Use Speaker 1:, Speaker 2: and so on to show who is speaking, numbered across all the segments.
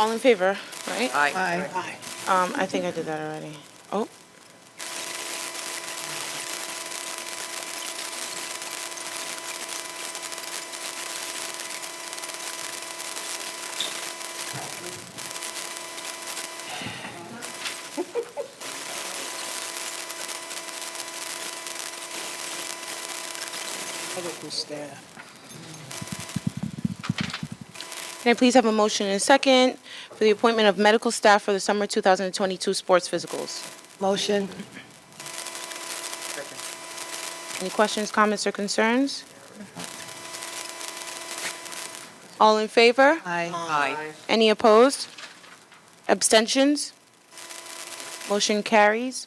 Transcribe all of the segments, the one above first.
Speaker 1: All in favor, right?
Speaker 2: Aye.
Speaker 3: Aye.
Speaker 1: Um, I think I did that already. Oh.
Speaker 3: I didn't stare.
Speaker 1: Can I please have a motion and a second for the appointment of medical staff for the summer 2022 sports physicals?
Speaker 3: Motion.
Speaker 1: Any questions, comments, or concerns? All in favor?
Speaker 3: Aye.
Speaker 2: Aye.
Speaker 1: Any opposed? Abstentions? Motion carries.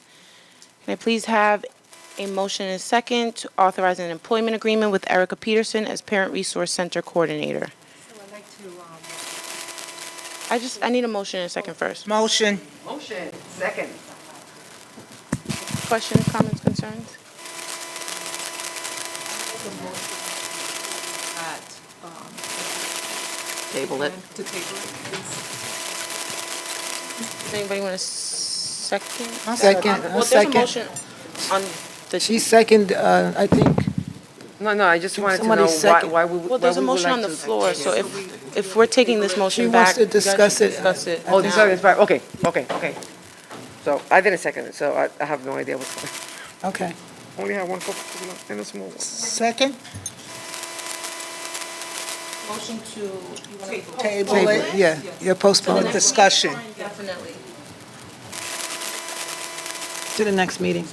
Speaker 1: Can I please have a motion and a second to authorize an employment agreement with Erica Peterson as Parent Resource Center Coordinator?
Speaker 4: So I'd like to, um,
Speaker 1: I just, I need a motion and a second first.
Speaker 3: Motion.
Speaker 2: Motion. Second.
Speaker 1: Questions, comments, concerns?
Speaker 4: at, um,
Speaker 2: Table it.
Speaker 4: to table it, please.
Speaker 1: Does anybody want a second?
Speaker 5: I'll second, I'll
Speaker 1: Well, there's a
Speaker 5: second.
Speaker 1: motion on the,
Speaker 5: She second, uh, I think,
Speaker 6: No, no, I just wanted to
Speaker 5: Somebody
Speaker 6: know why,
Speaker 5: second.
Speaker 6: why we would.
Speaker 1: well, there's
Speaker 6: why
Speaker 1: a
Speaker 6: we would
Speaker 1: motion
Speaker 6: like
Speaker 1: on the
Speaker 6: to-
Speaker 1: floor, so if, if we're taking this motion
Speaker 5: wants
Speaker 1: back.
Speaker 5: to
Speaker 1: you guys should
Speaker 5: discuss it.
Speaker 1: Discuss it.
Speaker 6: Oh, this is, okay, okay, okay. So I didn't second it, so I, I have no idea what's going
Speaker 5: okay.
Speaker 6: on. Only have one coca and a small one.
Speaker 3: Second.
Speaker 4: Motion to. Table.
Speaker 3: Table
Speaker 5: Table,
Speaker 3: it.
Speaker 5: yeah, yeah, postpone it
Speaker 3: Discussion.
Speaker 1: Definitely.
Speaker 5: to the next meeting.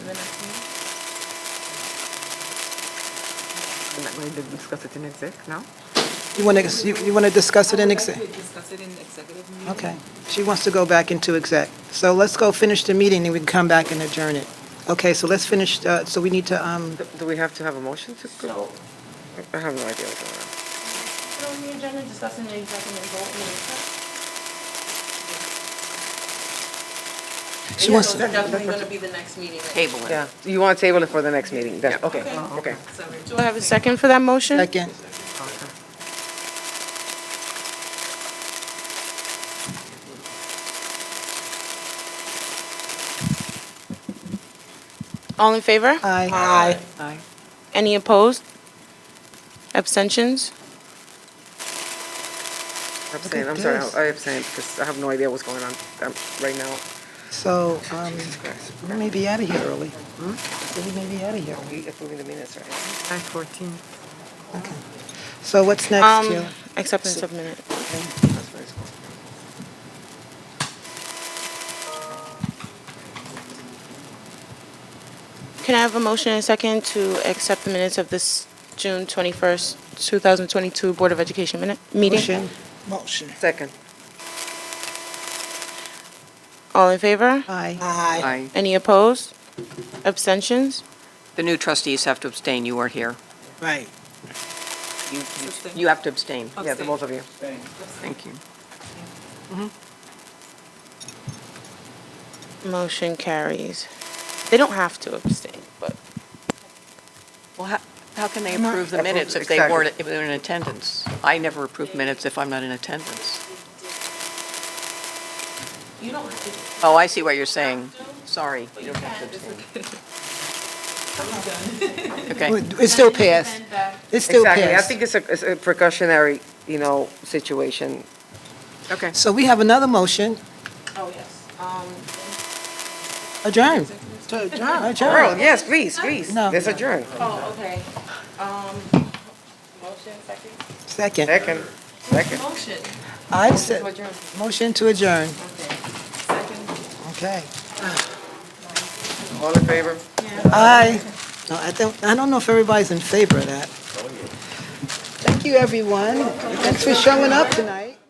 Speaker 6: We're not going to discuss it in exec now?
Speaker 5: You want to, you you want to discuss it in exec?
Speaker 4: We discuss it in executive meeting.
Speaker 5: Okay. She wants to go back into exec. So let's go finish the meeting, and we can come back and adjourn it. Okay, so let's finish, uh, so we need to, um,
Speaker 6: Do- Do we have to have a motion to go? I have no idea what's going on.
Speaker 5: she wants,
Speaker 1: It's definitely going to be the next meeting.
Speaker 2: Table it.
Speaker 6: Yeah, you want to table it for the next meeting, then, okay, okay.
Speaker 4: Sorry.
Speaker 1: Do I have a second for that motion?
Speaker 5: second.
Speaker 1: All in favor?
Speaker 5: Aye.
Speaker 1: Aye.
Speaker 6: Aye.
Speaker 1: Any opposed? Abstentions?
Speaker 6: Abstain,
Speaker 5: at
Speaker 6: I'm sorry,
Speaker 5: this.
Speaker 6: I abstain, because I have no idea what's going on um, right now.
Speaker 5: So, um, we may be out of here early. So We may be out of here.
Speaker 6: We approving the minutes, right?
Speaker 2: Nine fourteen.
Speaker 5: So what's
Speaker 1: Um,
Speaker 5: next, Jill?
Speaker 1: Acceptance of minute.
Speaker 6: That's very small.
Speaker 1: Can I have a motion and a second to accept the minutes of this June 21st, 2022 Board of Education minute, meeting?
Speaker 5: Motion?
Speaker 3: Motion.
Speaker 6: Second.
Speaker 1: All in favor?
Speaker 5: Aye.
Speaker 3: Aye.
Speaker 6: Aye.
Speaker 1: Any opposed? Abstentions?
Speaker 2: The new trustees have to abstain. You weren't here.
Speaker 3: Right.
Speaker 2: You, you-
Speaker 4: Abstain.
Speaker 2: you have to abstain.
Speaker 6: Yeah, the
Speaker 4: Abstain.
Speaker 6: both of you.
Speaker 2: Thank you.
Speaker 1: Motion carries. They don't have to abstain, but
Speaker 2: Well, how, how can they approve the minutes if they
Speaker 6: Exactly.
Speaker 2: weren't, if they were in attendance? I never approve minutes if I'm not in attendance.
Speaker 1: you don't have to.
Speaker 2: Oh, I see what you're saying. Sorry.
Speaker 1: You can.
Speaker 2: Okay.
Speaker 5: It still passed. It still passed.
Speaker 6: Exactly, I think it's a, it's a precautionary, you know, situation.
Speaker 2: Okay.
Speaker 5: So we have another motion,
Speaker 1: Oh, yes. Um,
Speaker 5: adjourn.
Speaker 3: To adjourn.
Speaker 6: Earl, yes, please, please,
Speaker 5: No.
Speaker 6: let's adjourn.
Speaker 1: Oh, okay. Um, motion, second?
Speaker 5: Second.
Speaker 6: Second, second.
Speaker 1: Motion.
Speaker 5: I said, motion to adjourn. Okay.
Speaker 6: All in favor?
Speaker 5: Aye. No, I don't, I don't know if everybody's in favor of that. Thank you, everyone. Thanks for showing up tonight.